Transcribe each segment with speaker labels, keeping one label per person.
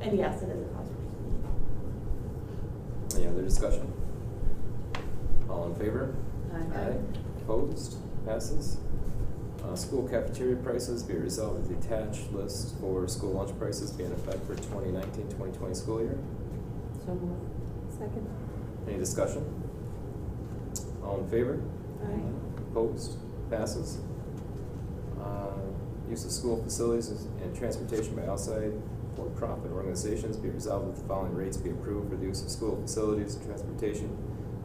Speaker 1: And yes, it is a conservation.
Speaker 2: Any other discussion? All in favor?
Speaker 1: Aye.
Speaker 2: Opposed? Passes. Uh, school cafeteria prices be resolved that the attached list for school lunch prices be in effect for 2019-2020 school year.
Speaker 1: So moved.
Speaker 3: Second.
Speaker 2: Any discussion? All in favor? Opposed? Passes. Uh, Use of school facilities and transportation by outside for-profit organizations be resolved that the following rates be approved for the use of school facilities and transportation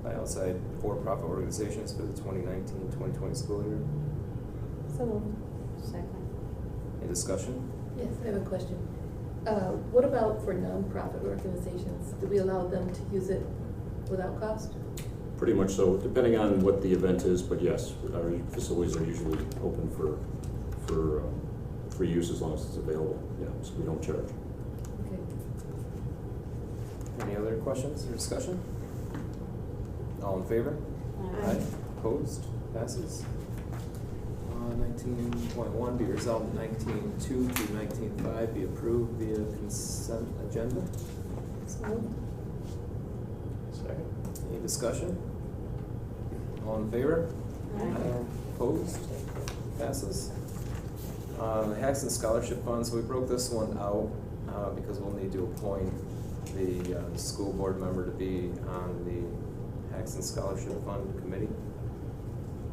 Speaker 2: by outside for-profit organizations for the 2019-2020 school year.
Speaker 3: So moved.
Speaker 1: Second.
Speaker 2: Any discussion?
Speaker 4: Yes, I have a question. Uh, What about for nonprofit organizations? Do we allow them to use it without cost?
Speaker 5: Pretty much so, depending on what the event is, but yes, our facilities are usually open for, for um, free use as long as it's available, yeah, so we don't charge.
Speaker 4: Okay.
Speaker 2: Any other questions or discussion? All in favor?
Speaker 1: Aye.
Speaker 2: Opposed? Passes. Uh, nineteen point one, be resolved nineteen two to nineteen five be approved via consent agenda.
Speaker 4: So moved.
Speaker 6: Second.
Speaker 2: Any discussion? All in favor?
Speaker 1: Aye.
Speaker 2: Opposed? Passes. Um, the Haxton Scholarship Fund, so we broke this one out, uh, because we'll need to appoint the, uh, school board member to be on the Haxton Scholarship Fund Committee.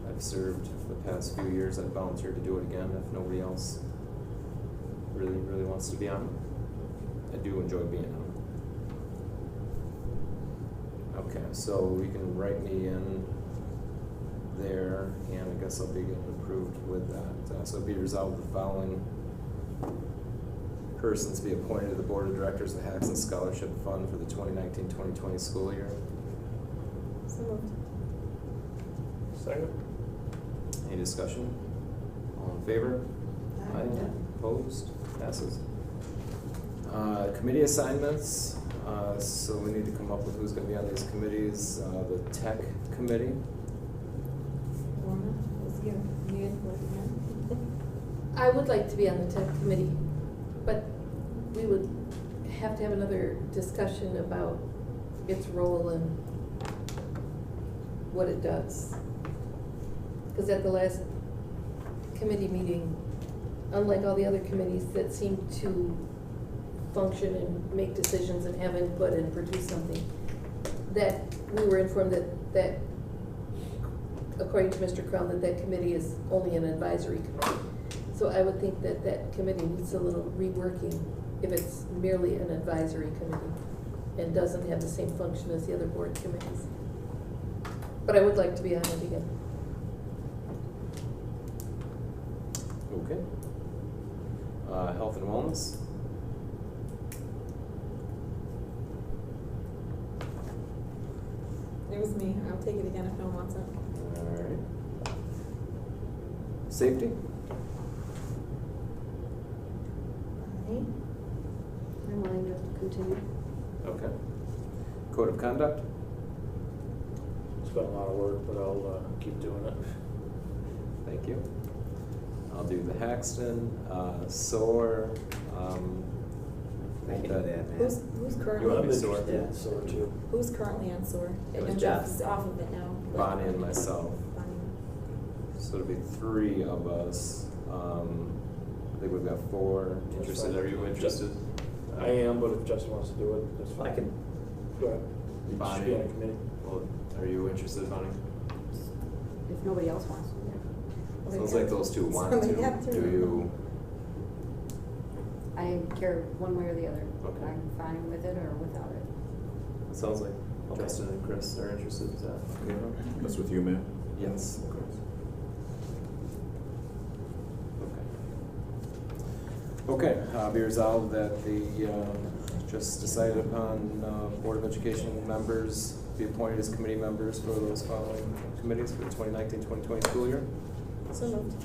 Speaker 2: I've served for the past few years, I've volunteered to do it again if nobody else really, really wants to be on it. I do enjoy being on it. Okay, so we can write me in there, and I guess I'll be getting approved with that. Uh, So be resolved the following persons be appointed to the Board of Directors of the Haxton Scholarship Fund for the 2019-2020 school year.
Speaker 3: So moved.
Speaker 6: Second.
Speaker 2: Any discussion? All in favor?
Speaker 1: Aye.
Speaker 2: Opposed? Passes. Uh, Committee assignments, uh, so we need to come up with who's gonna be on these committees. Uh, The Tech Committee,
Speaker 3: Warner, let's give Megan what
Speaker 4: I would like to be on the tech committee, but we would have to have another discussion about its role and what it does. Because at the last committee meeting, unlike all the other committees that seem to function and make decisions and have input and produce something, that we were informed that, that according to Mr. Crown, that that committee is only an advisory committee. So I would think that that committee needs a little reworking if it's merely an advisory committee and doesn't have the same function as the other board committees. But I would like to be on it again.
Speaker 2: okay. Uh, Health and Wellness,
Speaker 3: It was me, I'll take it again if no one wants it.
Speaker 2: Alright. Safety?
Speaker 1: Aye. I'm willing to continue.
Speaker 2: Okay. Code of conduct?
Speaker 6: It's been a lot of work, but I'll uh, keep doing it.
Speaker 2: Thank you. I'll do the Haxton, uh, SOAR, um.
Speaker 7: I can do that, man.
Speaker 3: Who's, who's
Speaker 2: You wanna
Speaker 6: I'm
Speaker 2: be
Speaker 3: currently,
Speaker 2: sore?
Speaker 6: interested in sore too.
Speaker 3: who's currently on sewer?
Speaker 2: It was
Speaker 3: And
Speaker 2: Jeff.
Speaker 3: Jeff's off of it now. but-
Speaker 2: Bonnie and myself.
Speaker 3: Bonnie.
Speaker 2: So it'll be three of us, um, I think we've got four
Speaker 6: That's
Speaker 2: interested,
Speaker 6: fine.
Speaker 2: are you interested?
Speaker 6: I am, but if Justin wants to do it, that's fine.
Speaker 7: I can,
Speaker 6: Go ahead. You should be
Speaker 2: Bonnie.
Speaker 6: on a committee.
Speaker 2: Well, are you interested, Bonnie?
Speaker 1: If nobody else wants to.
Speaker 2: Sounds like those two want to,
Speaker 3: Somebody had
Speaker 2: do you,
Speaker 8: I care one way or the other.
Speaker 2: Okay.
Speaker 8: I'm fine with it or without it.
Speaker 2: it sounds like Justin and Chris are interested, is that okay?
Speaker 5: That's with you, Matt?
Speaker 2: Yes. Okay, uh, be resolved that the, um, just decided upon, uh, Board of Education members be appointed as committee members for those following committees for the 2019-2020 school year.
Speaker 3: So moved.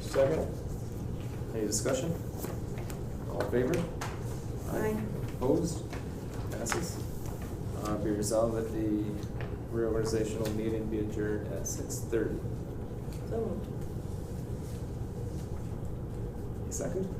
Speaker 6: Second?
Speaker 2: Any discussion? All in favor?
Speaker 3: Aye.
Speaker 2: Opposed? Passes. Uh, be resolved that the reorganizational meeting be adjourned at six thirty.
Speaker 3: So moved.
Speaker 2: Second?